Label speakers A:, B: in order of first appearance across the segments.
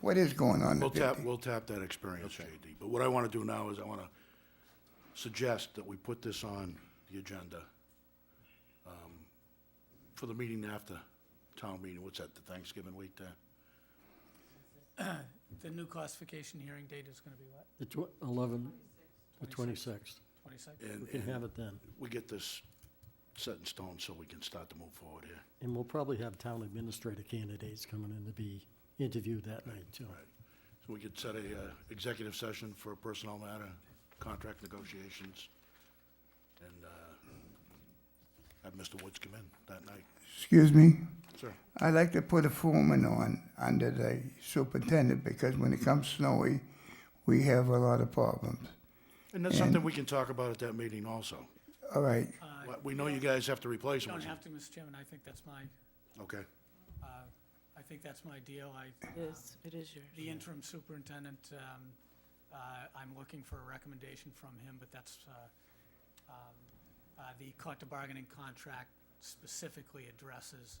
A: What is going on?
B: We'll
A: the
B: tap,
A: 50?
B: we'll tap that experience, JD. But what I want to do now is I want to suggest that we put this on the agenda um, for the meeting after town meeting. What's that, the Thanksgiving week there?
C: The new classification hearing date is gonna be what,
D: The tw- 11, the 26th.
C: twenty-sixth?
D: We
B: And,
D: can
B: and
D: have it then.
B: we get this set in stone so we can start to move forward here.
D: And we'll probably have town administrator candidates coming in to be interviewed that night, too.
B: Right. So we could set a uh, executive session for a personnel matter, contract negotiations, and uh, have Mr. Woods come in that night.
A: Excuse me?
B: Sir?
A: I'd like to put a foreman on, under the superintendent, because when it comes snowy, we have a lot of problems.
B: And that's something we can talk about at that meeting also.
A: All right,
B: Well, We know you guys have to replace
C: You
B: them.
C: don't have to, Mr. Chairman, I think that's my,
B: Okay,
C: uh, I think that's my deal, I,
E: It is, it is yours.
C: the interim superintendent, um, uh, I'm looking for a recommendation from him, but that's, uh, um, uh, the collective bargaining contract specifically addresses,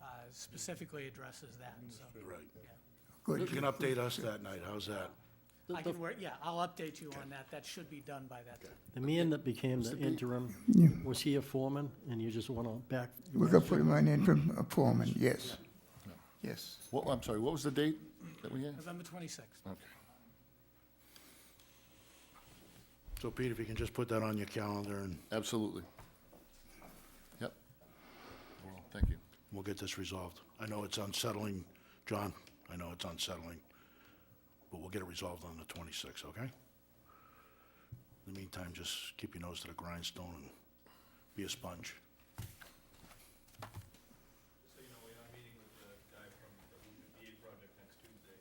C: uh, specifically addresses that, so,
B: right. You
A: good.
B: can update us that night, how's that?
C: I can, work- yeah, I'll update you on that, that should be done by that time.
D: The man that became the interim, was he a foreman? And you just want to back,
A: We're gonna put him on interim uh, foreman, yes. Yes.
F: Well, I'm sorry, what was the date that we had?
C: November twenty-sixth.
B: So Pete, if you can just put that on your calendar and
F: Absolutely. Yep. Well, Thank you.
B: we'll get this resolved. I know it's unsettling, John, I know it's unsettling, but we'll get it resolved on the twenty-sixth, okay? In the meantime, just keep your nose to the grindstone and be a sponge.
G: So you know, we are meeting with the guy from the VA project next Tuesday,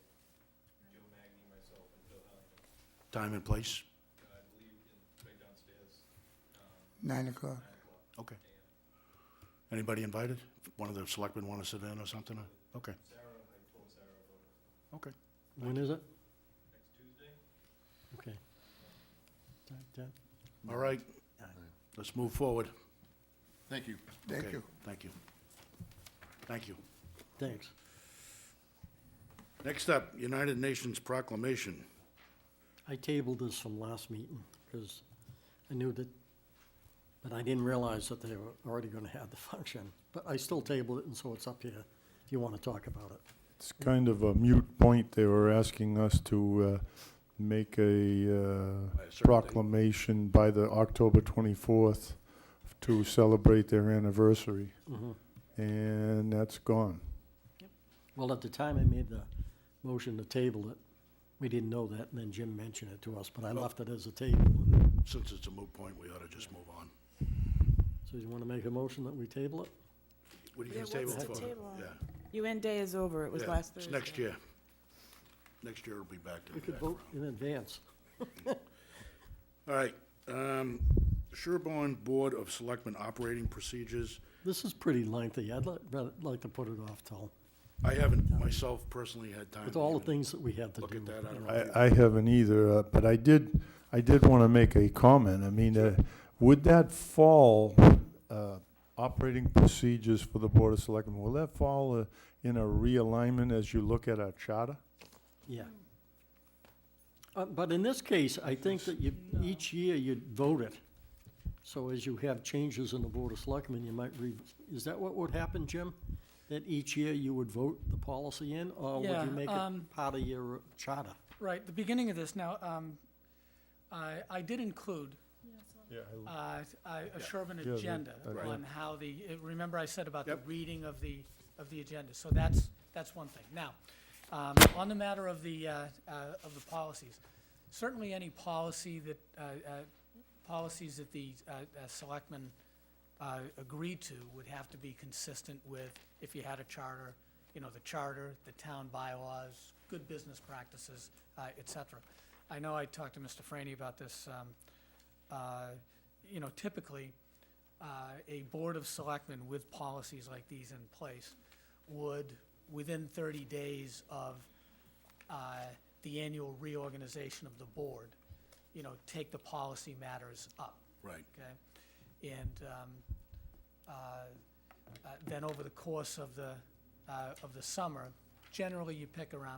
G: Joe Magny, myself, and Bill Halligan,
B: Time and place?
G: I believe, in right downstairs.
A: Nine o'clock.
B: Okay. Anybody invited? One of the selectmen want to sit in or something? Okay. Okay.
D: when is it? Next Tuesday. Okay. Time, time.
B: All right, let's move forward.
F: Thank you.
A: Thank
B: Okay,
A: you.
B: Thank you. Thank you.
D: Thanks.
B: Next up, United Nations proclamation.
D: I tabled this from last meeting because I knew that, but I didn't realize that they were already going to have the function. But I still tabled it, and so it's up here if you want to talk about it.
H: It's kind of a mute point. They were asking us to uh, make a
B: By a
H: uh,
B: certain date.
H: proclamation by the October 24th to celebrate their anniversary.
B: Mm-hmm.
H: And that's gone.
D: Well, at the time I made the motion to table it, we didn't know that, and then Jim mentioned it to us, but I
B: Oh.
D: left it as a table.
B: Since it's a moot point, we ought to just move on.
D: So you want to make a motion that we table it?
B: What do you
E: Yeah,
B: guys table
E: what's the
B: for?
E: table on?
B: Yeah,
E: UN Day is over, it was
B: yeah.
E: last
B: It's
E: Thursday.
B: next year. Next year it'll be back to
D: We
B: the
D: could vote in advance.
B: All right, um, Sherburne Board of Selectmen Operating Procedures.
D: This is pretty lengthy. I'd li- rather- like to put it off till,
B: I haven't myself personally had time.
D: with
B: to
D: all the
B: even-
D: things that we have to do.
B: Look at that, I don't know.
H: I, I haven't either, uh, but I did, I did want to make a comment. I mean, uh, would that fall, uh, operating procedures for the Board of Selectmen, will that fall uh, in a realignment as you look at our charter?
D: Yeah. Uh, But in this case, I think that you, each year you vote it. So as you have changes in the Board of Selectmen, you might re, is that what would happen, Jim? That each year you would vote the policy in, or would
C: Yeah,
D: you make
C: um,
D: it part of your charter?
C: Right, the beginning of this, now, um, I, I did include,
H: Yeah,
C: uh, I- a Sherburne
H: the-
C: agenda
H: okay.
C: on how the, uh, remember I said about the
B: Yep.
C: reading of the, of the agenda, so that's, that's one thing. Now, um, on the matter of the, uh, uh, of the policies, certainly any policy that, uh, uh, policies that the, uh, uh, selectmen, uh, agree to would have to be consistent with, if you had a charter, you know, the charter, the town bylaws, good business practices, uh, et cetera. I know I talked to Mr. Franny about this, um, uh, you know, typically, uh, a board of selectmen with policies like these in place would, within thirty days of, uh, the annual reorganization of the board, you know, take the policy matters up
B: Right.
C: okay? And um, uh, uh, then over the course of the, uh, of the summer, generally you pick around